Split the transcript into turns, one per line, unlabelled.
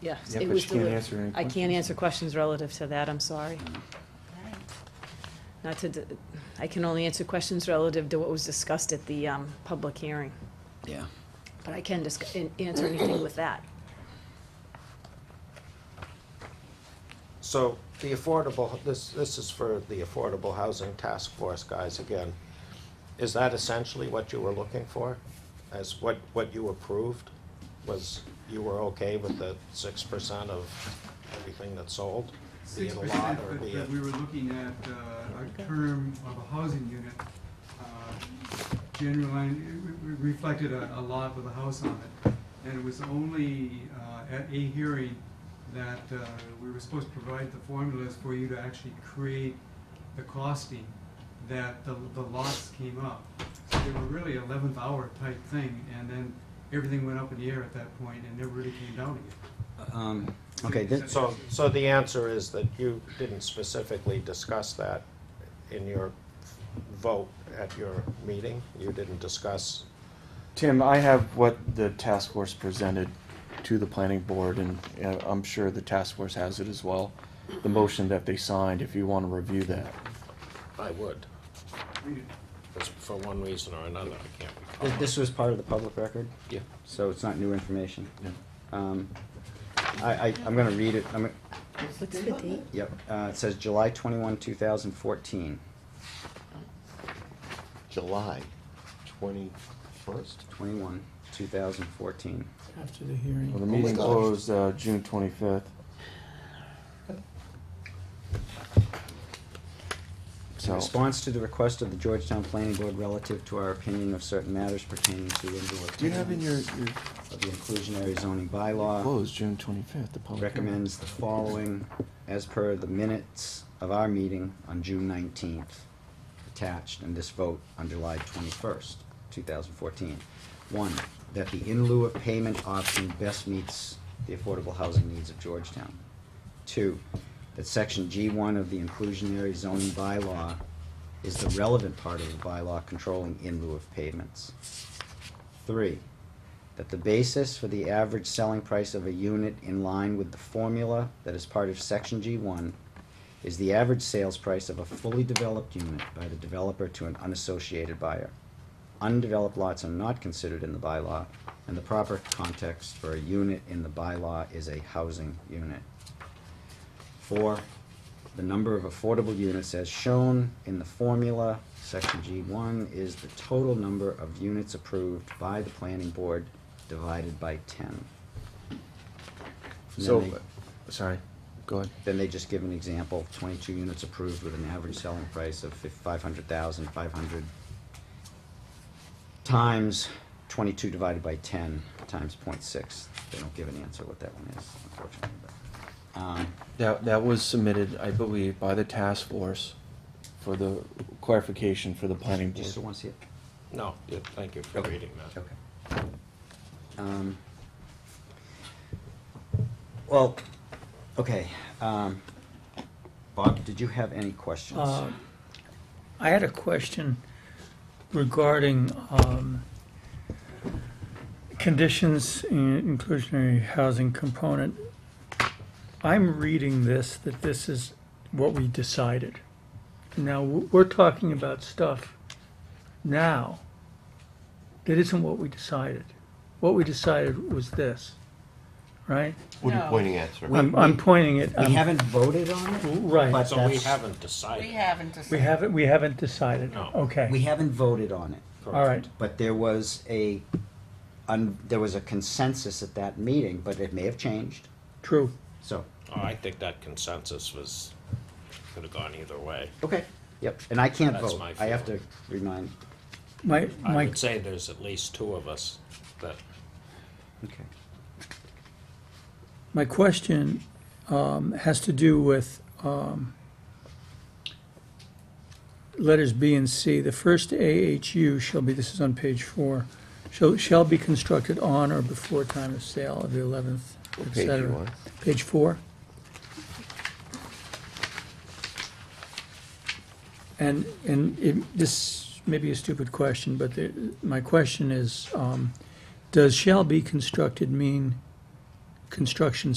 Yes,
Yeah,
it
but
was
you can't
deli-
answer any
I can't
questions.
answer questions relative to that, I'm sorry. Not to, d- I can only answer questions relative to what was discussed at the um, public hearing,
Yeah.
but I can disc- an- answer anything with that.
So the affordable, this, this is for the Affordable Housing Task Force guys again. Is that essentially what you were looking for? As what, what you approved was you were okay with the six percent of everything that's sold? Be
six
it a lot
percent,
or
but,
be
but
it,
we were looking at, uh, a term of a housing unit. uh, General line, it re- re- reflected a, a lot with a house on it, and it was only, uh, at a hearing that, uh, we were supposed to provide the formulas for you to actually create the costing that the, the lots came up. So they were really eleventh hour type thing, and then everything went up in the air at that point and never really came down again.
Um, okay, thi-
so, so the answer is that you didn't specifically discuss that in your vote at your meeting? You didn't discuss,
Tim, I have what the task force presented to the planning board, and uh, I'm sure the task force has it as well. The motion that they signed, if you want to review that.
I would,
Read it.
It's for one reason or another, I can't recall.
thi- this was part of the public record,
Yeah.
so it's not new information.
Yeah.
Um, I, I, I'm gonna read it, I'm, gonna-
What's the date?
yep, uh, it says July twenty-one, two thousand fourteen,
July twenty-first?
twenty-one, two thousand fourteen.
After the hearing.
Well, the meeting
gosh.
closed uh, June 25th.
In
So,
response to the request of the Georgetown Planning Board relative to our opinion of certain matters pertaining to indoor
do you have in your,
tenants
your uh,
of the inclusionary zoning bylaw.
closed June 25th, the public hearing?
recommends the following as per the minutes of our meeting on June nineteenth, attached, and this vote on July twenty-first, two thousand fourteen. One, that the in lieu of payment option best meets the affordable housing needs of Georgetown. Two, that section G one of the inclusionary zoning bylaw is the relevant part of the bylaw controlling in lieu of payments. Three, that the basis for the average selling price of a unit in line with the formula that is part of section G one is the average sales price of a fully developed unit by the developer to an unassociated buyer. Undeveloped lots are not considered in the bylaw, and the proper context for a unit in the bylaw is a housing unit. Four, the number of affordable units as shown in the formula, section G one, is the total number of units approved by the planning board divided by ten. And then
So,
they-
sorry, go ahead.
then they just give an example, twenty-two units approved with an average selling price of five hundred thousand, five hundred times twenty-two divided by ten times point six. They don't give an answer what that one is, unfortunately, but, um,
That, that was submitted, I believe, by the task force for the clarification for the planning
do you still
board.
wanna see it?
No, yeah, thank you for reading that.
Okay. Um, Well, okay, um, Bob, did you have any questions?
Uh, I had a question regarding um, conditions in inclusionary housing component. I'm reading this, that this is what we decided. Now, w- we're talking about stuff now that isn't what we decided. What we decided was this, right?
What are you
No.
pointing at, sir?
I'm I'm pointing it,
We
I'm-
haven't voted on it?
right.
but
So we
that's-
haven't decided.
We haven't
We
decided.
haven't, we haven't decided.
No.
We
Okay,
haven't voted on it.
all right.
But there was a, un, there was a consensus at that meeting, but it may have changed,
True.
so.
Oh, I think that consensus was, could have gone either way.
Okay. Yep, and I can't
That's
vote,
my
I have to remind,
My,
I
my,
would say there's at least two of us that,
okay.
my question um, has to do with um, letters B and C. The first AHU shall be, this is on page four, shall, shall be constructed on or before time of sale of the eleventh, et
page you
cetera.
on?
Page four. And, and it, this may be a stupid question, but the, my question is, um, does shall be constructed mean construction